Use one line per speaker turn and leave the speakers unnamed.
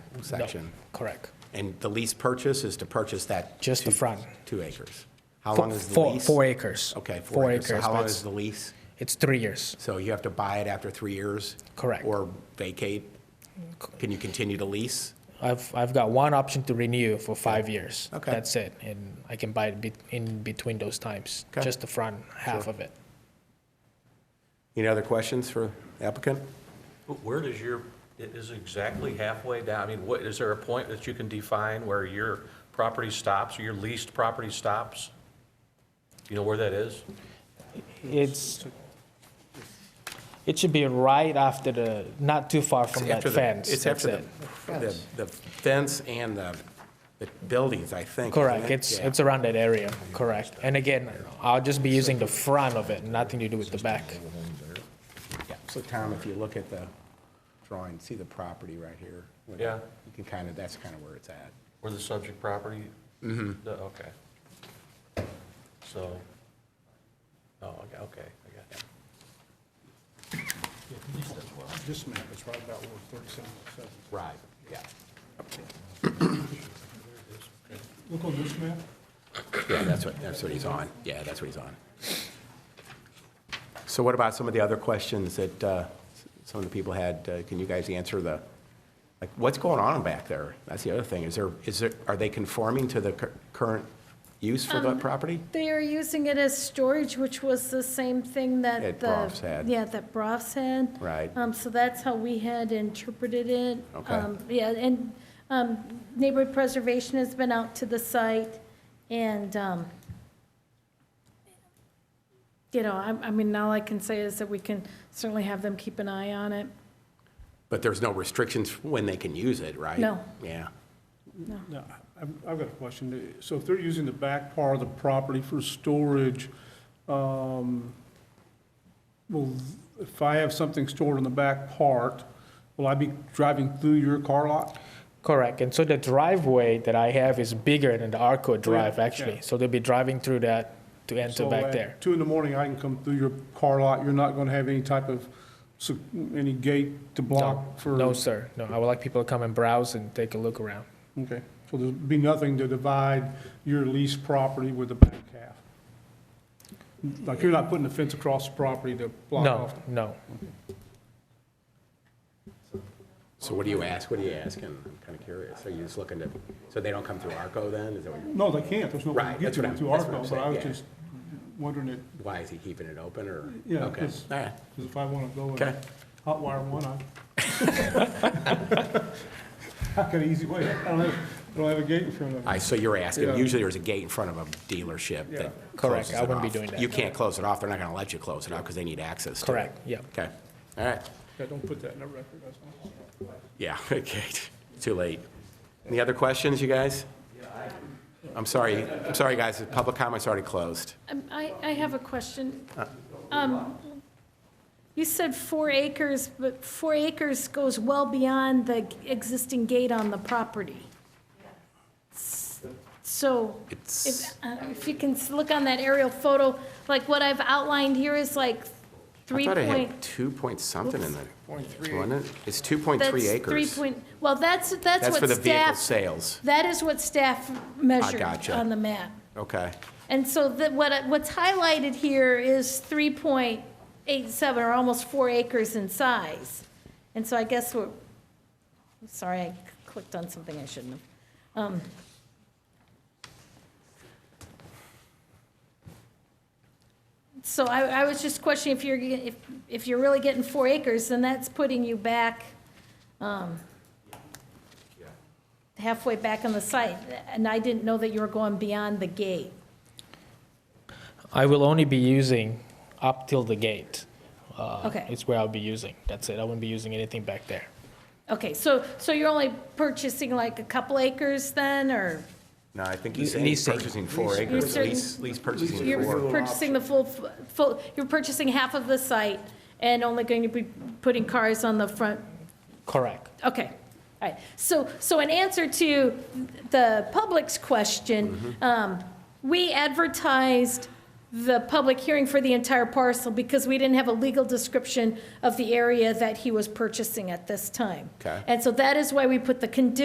section.
Correct.
And the lease purchase is to purchase that?
Just the
two-
front.
Two acres. How long is the
Four-
lease?
Four acres.
Okay, four acres. So how long
that's-
is the lease?
It's three years.
So you have to buy it after three years?
Correct.
Or vacate? Can you continue to lease?
I've, I've got one option to renew for five years.
Okay.
That's it, and I can buy it be- in between those times,
Okay.
just the front half of it.
Any other questions for applicant?
But Where does your, it is exactly halfway down, I mean, what, is there a point that you can define where your property stops, or your leased property stops? You know where that is?
It's, it should be right after the, not too far from that
After the-
fence.
It's
that's
after
it.
the, the the fence and the the buildings, I think. isn't
Correct,
it?
it's,
Yeah.
it's around that area, correct. And again, I'll just be using the front of it, nothing to do with the back.
Yeah. So Tom, if you look at the drawing, see the property right here?
Yeah.
You can kind of, that's kind of where it's at.
Where the subject property? Mm-hmm. Okay. So, oh, okay, okay, I got it.
This map is right about where 3707.
Right, yeah.
Look on this map.
Yeah, that's what, that's what he's on. Yeah, that's what he's on. So what about some of the other questions that uh, s- some of the people had? Uh, Can you guys answer the, like, what's going on back there? That's the other thing. Is there, is there, are they conforming to the cur- current use for the property?
They are using it as storage, which was the same thing
That
that the.
Brof's had.
Yeah, that Brof's had.
Right.
Um, so that's how we had interpreted it.
Okay.
Um, Yeah, and, um, neighborhood preservation has been out to the site and, um, you know, I, I mean, all I can say is that we can certainly have them keep an eye on it.
But there's no restrictions when they can use it, right?
No.
Yeah.
Now, I've, I've got a question. So if they're using the back part of the property for storage, um, will, if I have something stored in the back part, will I be driving through your car lot?
Correct, and so the driveway that I have is bigger than the Arco Drive,
yeah.
actually. So they'll be driving through that to enter
So
back
at
there.
Two in the morning, I can come through your car lot. You're not going to have any type of, se- any gate to
No,
block for?
no, sir, no, I would like people to come and browse and take a look around.
Okay, so there'll be nothing to divide your lease property with the back half? Like, you're not putting a fence across the property to block
No,
off?
no.
So what do you ask? What do you asking? I'm kind of curious. Are you just looking to, so they don't come through ARCO then? Is that what you're,
No, they can't, there's no way
Right,
to get
that's what
to
I'm-
it
that's
through
what I'm
Arco, but I
saying,
was
yeah.
just wondering it,
why is he keeping it open or?
Yeah,
Okay,
it's-
all right.
because if I want to go
Okay.
and hot wire one, I. I got an easy way, I don't have, I don't have a gate in front of
All
me.
right, so you're asking,
Yeah.
usually there's a gate in front of a dealership
Yeah.
that
Correct,
closes
I
it
wouldn't be
off.
doing that,
You can't close it off, they're not going to let you close it off because they need access to it.
Correct, yeah.
Okay, all right,
Yeah, Don't put that in the record, that's all.
yeah, okay, too late. Any other questions, you guys? I'm sorry, I'm sorry, guys, the public comment's already closed.
Um, I, I have a question.
Uh.
Um, You said four acres, but four acres goes well beyond the existing gate on the property. So if,
It's,
uh, if you can s- look on that aerial photo, like what I've outlined here is like
I
three
thought I
point.
had two point something in there. Point three. Wasn't it? It's two point
that's
three acres.
Three point, well, that's, that's
That's for
what
the vehicle
staff,
sales,
that is what staff measured
gotcha.
on the map.
okay.
And so that, what, I- what's highlighted here is three point eight seven, or almost four acres in size. And so I guess we're, I'm sorry, I clicked on something I shouldn't have. Um, So I, I was just questioning if you're, ge- if, if you're really getting four acres, then that's putting you back, um, halfway back on the site, and I didn't know that you were going beyond the gate.
I will only be using up till the gate. Uh,
Okay.
It's where I'll be using, that's it, I wouldn't be using anything back there.
Okay, so, so you're only purchasing like a couple acres then, or
No, I think he's saying he's
Leasing.
purchasing four
You're
acres,
certain-
lease, lease purchasing
you're
four.
purchasing the full, full, you're purchasing half of the site and only going to be putting cars on the front?
Correct,
Okay, all right. So, so in answer to the public's question, um, we advertised the public hearing for the entire parcel because we didn't have a legal description of the area that he was purchasing at this time.
Okay.
And so that is why we put the condition